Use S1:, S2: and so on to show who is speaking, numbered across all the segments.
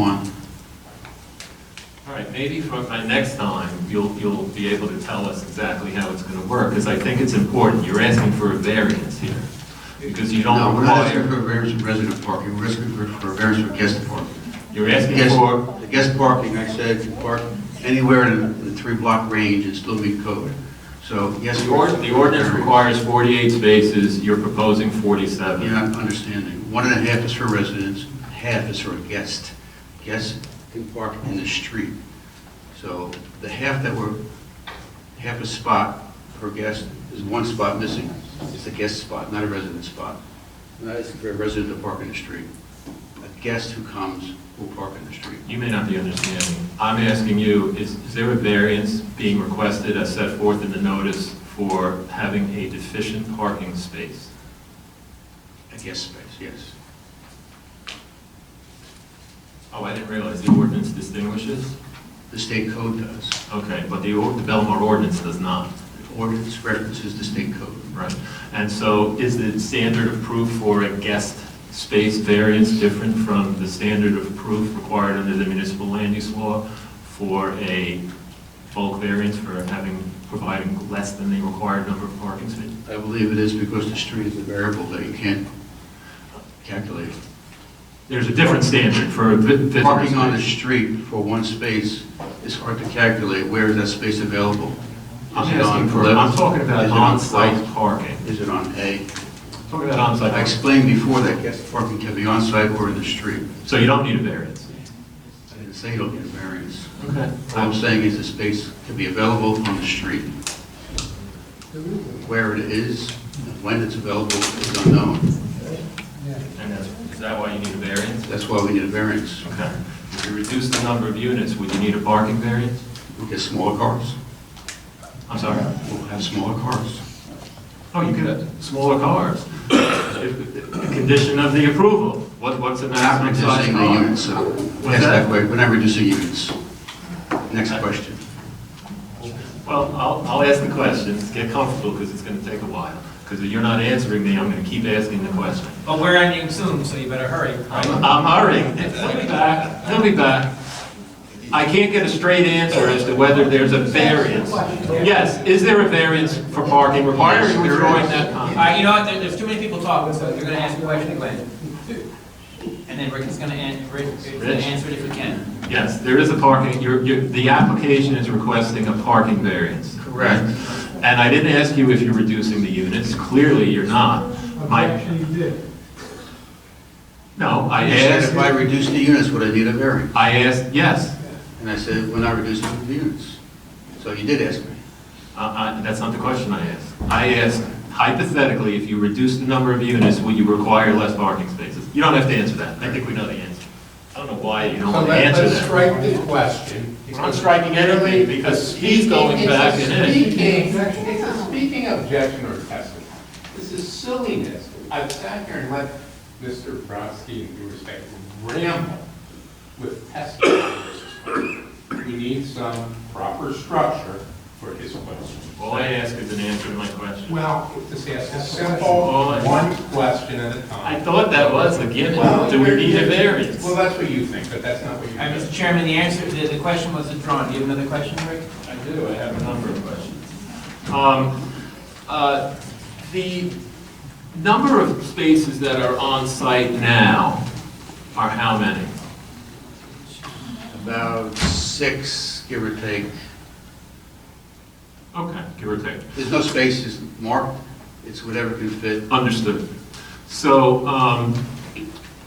S1: One.
S2: All right, maybe for my next time, you'll, you'll be able to tell us exactly how it's going to work, because I think it's important. You're asking for a variance here, because you
S1: No,
S2: don't
S1: we're not asking for
S2: require,
S1: a variance for resident parking, we're asking for for a variance for guest parking.
S2: you're asking
S1: Guest,
S2: for,
S1: the guest parking, I said, you park anywhere in the three-block range and still meet code. So, yes,
S2: the
S1: you are.
S2: ord- the ordinance requires 48 spaces, you're proposing 47.
S1: You're not understanding. One and a half is for residents, half is for a guest. Guests can park in the street. So the half that we're, half a spot per guest is one spot missing. It's a guest spot, not a resident spot. Not as for a resident to park in the street. A guest who comes will park in the street.
S2: You may not be understanding. I'm asking you, is, is there a variance being requested as set forth in the notice for having a deficient parking space?
S1: A guest space, yes.
S2: Oh, I didn't realize the ordinance distinguishes?
S1: The state code does.
S2: Okay, but the, or- the Belmar ordinance does not.
S1: The ordinance references the state code.
S2: Right, and so is the standard of proof for a guest space variance different from the standard of proof required under the municipal land use law for a bulk variance for having, providing less than the required number of parking spaces?
S1: I believe it is because the street is a variable that you can't calculate.
S2: There's a different standard for a vi- visitor
S1: Parking on the
S2: space.
S1: street for one space is hard to calculate. Where is that space available? Is
S2: I'm
S1: it on
S2: asking for,
S1: level-
S2: I'm talking about
S1: is it on
S2: on-site
S1: flight?
S2: parking.
S1: Is it on A?
S2: Talking about on-site
S1: I
S2: parking.
S1: explained before that guest parking can be on-site or in the street.
S2: So you don't need a variance?
S1: I didn't say you don't get a variance.
S2: Okay.
S1: All I'm saying is the space can be available on the street. Where it is, and when it's available is unknown.
S2: And that's, is that why you need a variance?
S1: That's why we need a variance.
S2: Okay. If you reduce the number of units, would you need a parking variance?
S1: We'll get smaller cars.
S2: I'm sorry?
S1: We'll have smaller cars.
S2: Oh, you could have smaller cars. If- if- Condition of the approval. What, what's the
S1: We're not
S2: maximum size
S1: reducing the
S2: car?
S1: units, so, yes, that way, we're not reducing units. Next question.
S2: Well, I'll, I'll ask the questions, get comfortable, because it's going to take a while. Because if you're not answering me, I'm going to keep asking the question.
S3: But we're ending soon, so you better hurry.
S2: I'm I'm hurrying. He'll be back, he'll be back. I can't get a straight answer as to whether there's a variance. Yes, is there a variance for parking required, or are we throwing that
S3: All
S2: comment?
S3: right, you know what, there- there's too many people talking, so you're gonna ask a question again. And then Rick is gonna an, Rick is gonna
S2: Rich?
S3: answer it if he can.
S2: Yes, there is a parking, you're, you're, the application is requesting a parking variance.
S1: Correct.
S2: And I didn't ask you if you're reducing the units, clearly you're not. My,
S4: Objection, you did.
S2: no, I
S1: I said if I
S2: asked,
S1: reduce the units, would I need a variance?
S2: I asked, yes,
S1: And I said, we're not reducing the units. So you did ask me.
S2: Uh, I- That's not the question I asked. I asked hypothetically, if you reduce the number of units, will you require less parking spaces? You don't have to answer that. I think we know the answer. I don't know why you don't
S5: So
S2: want to
S5: let-
S2: answer
S5: let's
S2: that.
S5: strike the question.
S2: I'm not striking anything because he's going
S5: It's a
S2: back and in.
S5: speaking- It's a speaking objection or testimony. This is silliness. I've sat here and let Mr. Brodsky, in due respect, ramble with testimony. versus question. We need some proper structure for his question.
S2: All I ask is an answer to my question.
S5: Well, just ask a simple, one question at a
S2: I
S5: time.
S2: thought that was a given.
S5: Well,
S2: Do we
S5: you're-
S2: need a
S5: you're-
S2: variance?
S5: Well, that's what you think, but that's not what you
S3: All right, Mr.
S5: think.
S3: Chairman, the answer, the, the question was withdrawn. Do you have another question, Rick?
S2: I do, I have a number of questions. Um, uh, The number of spaces that are on site now are how many?
S1: About six, give or take.
S2: Okay, give or take.
S1: There's no spaces marked, it's whatever can fit.
S2: Understood. So, um,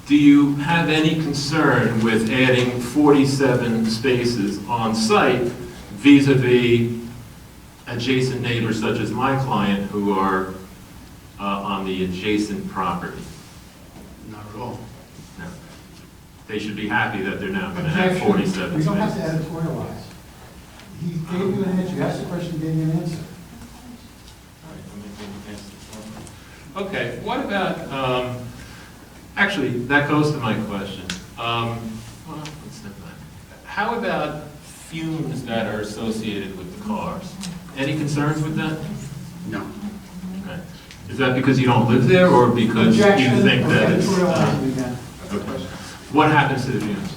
S2: do you have any concern with adding 47 spaces on site vis-à-vis adjacent neighbors such as my client who are uh, on the adjacent property?
S1: Not at all.
S2: No. They should be happy that they're now going to have
S4: Objection.
S2: 47
S4: We don't have to
S2: spaces.
S4: editorialize. He gave you an answer, you asked a question, gave you an answer.
S2: Okay, what about, um, actually, that goes to my question. Um, well, let's step back. How about fumes that are associated with the cars? Any concerns with that?
S1: No.
S2: Okay. Is that because you don't live there or because you
S4: Objection,
S2: think that it's? uh,
S4: editorializing again.
S2: okay. What happens to the fumes?